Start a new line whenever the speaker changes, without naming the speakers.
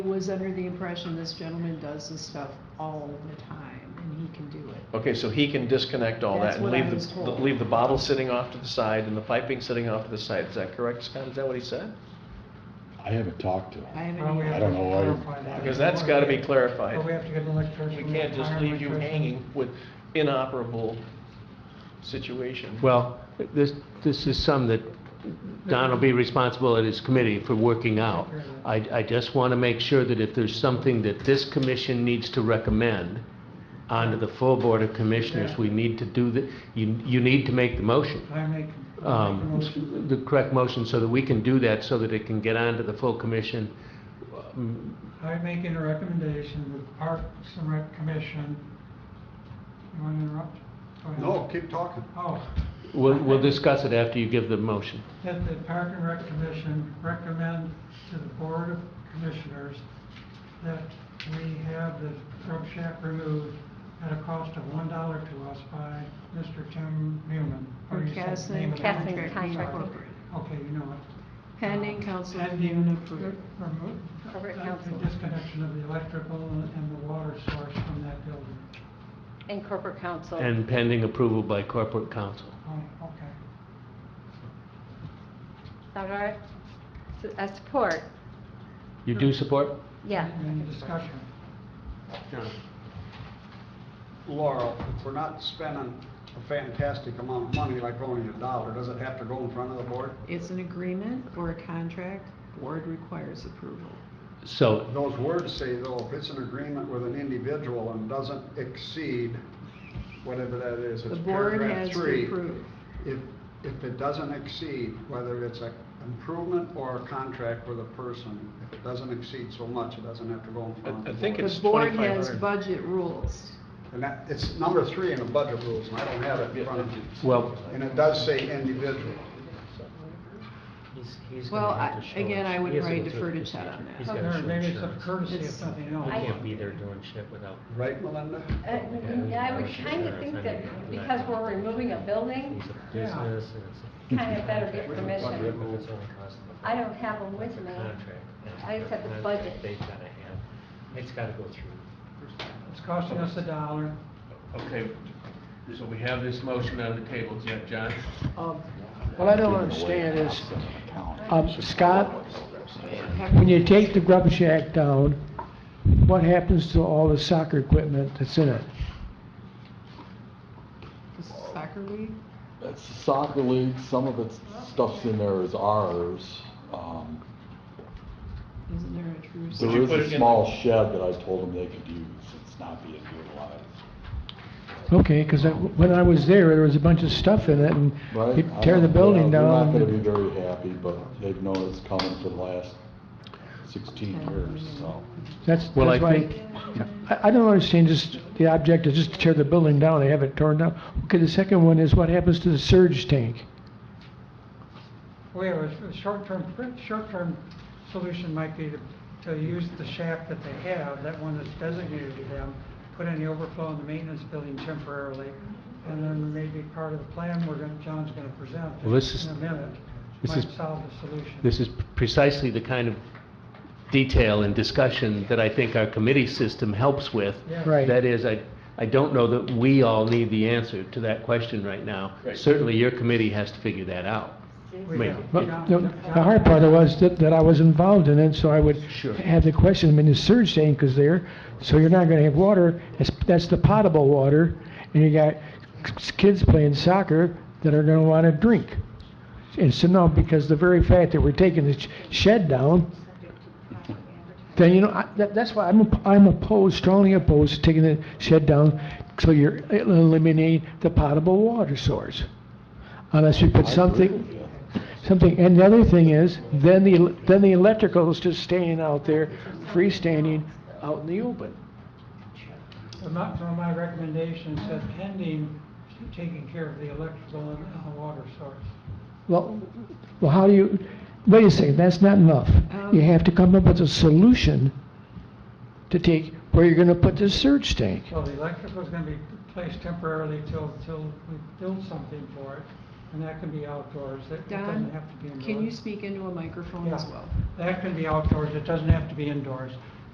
was under the impression this gentleman does this stuff all the time and he can do it.
Okay, so he can disconnect all that
That's
and
what I
leave
was
the,
told.
leave the bottle sitting off to the side and the piping sitting off to the side. Is that correct, Scott? Is that what he said?
I haven't talked to him.
I haven't.
Well, we
either.
I
have
don't
to
know why-
clarify that.
Because that's gotta be
Well, we
clarified.
have to get an electrician.
We can't just
hire an
leave you
electrician.
hanging with inoperable situation.
Well, this, this is some that Don will be responsible at his committee for working out. I, I just want to make sure that if there's something that this commission needs to recommend onto the full Board of Commissioners, we need to do the, you, you need to make the motion.
I make, I make a
um,
motion.
The correct motion so that we can do that, so that it can get onto the full commission. Um,
I make a recommendation that the Parks and Rec Commission, you want to interrupt? Go ahead.
No, keep talking.
Oh,
We'll, we'll discuss it after you give the motion.
that the Park and Rec Commission recommend to the Board of Commissioners that we have the grub shack removed at a cost of one dollar to us by Mr. Tim Newman. Or
Or
you said the
Kathleen.
name of the
Kathleen
contract.
Contract.
Incorporated.
Okay, you know it.
Pending council review
Pending
and
re-
approval.
remote-
Corporate
uh,
council.
The disconnection of the electrical and the water source from that building.
And corporate counsel.
And pending approval by corporate counsel.
Oh, okay.
Is that all right? So, uh, support,
You do support?
yeah.
Any discussion?
Laurel, if we're not spending a fantastic amount of money, like only a dollar, does it have to go in front of the board?
It's an agreement or a contract, board requires approval.
So
Those words say though, if it's an agreement with an individual and doesn't exceed whatever that is,
The
it's
board
paragraph
has to
three.
approve.
If, if it doesn't exceed, whether it's an improvement or a contract with a person, if it doesn't exceed so much, it doesn't have to go in front of
I-
the
I
board.
think
The
it's
board has
2,500.
budget rules.
And that, it's number three in the budget rules, and I don't have it in front of me.
Well-
And it does say individual.
Well, I- again, I would probably defer to Chad on that.
He's gotta
Or
show
Maybe it's a
insurance.
courtesy of
It's-
something
You
else.
can't be there doing shit without.
Right, Melinda?
Uh, and I would kind of think that because we're removing a building,
He's a
Yeah.
business and it's. a-
kind of better get
It's a
permission.
contract, it's only cost of a-
I don't have them with
it's a
me.
contract, and
I just have the
contract
budget.
They've gotta have, it's gotta go through.
It's costing us a dollar.
Okay, so we have this motion on the table, Jack, John?
What I don't understand is, um, Scott,
Have-
when you take the grub shack down, what happens to all the soccer equipment that's in it?
Soccer league?
It's the soccer league, some of its stuff's in there is ours. Um,
Isn't there a true?
There
you
is
put it in
a
the-
small shed that I told them they could use, it's not being utilized.
Okay, because when I was there, there was a bunch of stuff in it, and
Right?
you
I
tear the
don't-
building
yeah,
down.
They're not gonna be very happy, but they've known it's coming for the last sixteen years, so.
That's, that's
Well, I
why,
think-
I, I don't understand just, the object is just to tear the building down, they have it torn down. Okay, the second one is what happens to the surge tank?
We have a s- short-term, pr- short-term solution might be to, to use the shaft that they have, that one that's designated to them, put any overflow in the maintenance building temporarily, and then maybe part of the plan we're gonna, John's gonna present
Well, this is-
in a minute,
this
might
is-
solve the solution.
This is precisely the kind of detail and discussion that I think our committee system helps with.
Yeah.
Right.
That is, I, I don't know that we all need the answer to that question right now.
Right.
Certainly, your committee has to figure that out.
We
Maybe.
don't-
Well,
we don't-
the the hard part was that, that I was involved in it, so I would
Sure.
have the question, I mean, the surge tank is there, so you're not gonna have water, that's, that's the potable water, and you got k- kids playing soccer that are gonna wanna drink. And so now, because the very fact that we're taking the sh- shed down, then, you know, I, that, that's why I'm, op- I'm opposed, strongly opposed to taking the shed down, so you're eliminating the potable water source. Unless you put something. Something, and the other thing is, then the, then the electrical is just staying out there, freestanding, out in the open.
So my, so my recommendation is that pending taking care of the electrical and uh, water source.
Well, well, how do you, wait a second, that's not enough. You have to come up with a solution to take, where you're gonna put this surge tank.
Well, the electrical's gonna be placed temporarily till, till we build something for it, and that can be outdoors, it it doesn't
Don,
have to be indoors.
can you speak into a microphone as
Yeah.
well?
That can be outdoors, it doesn't have to be indoors.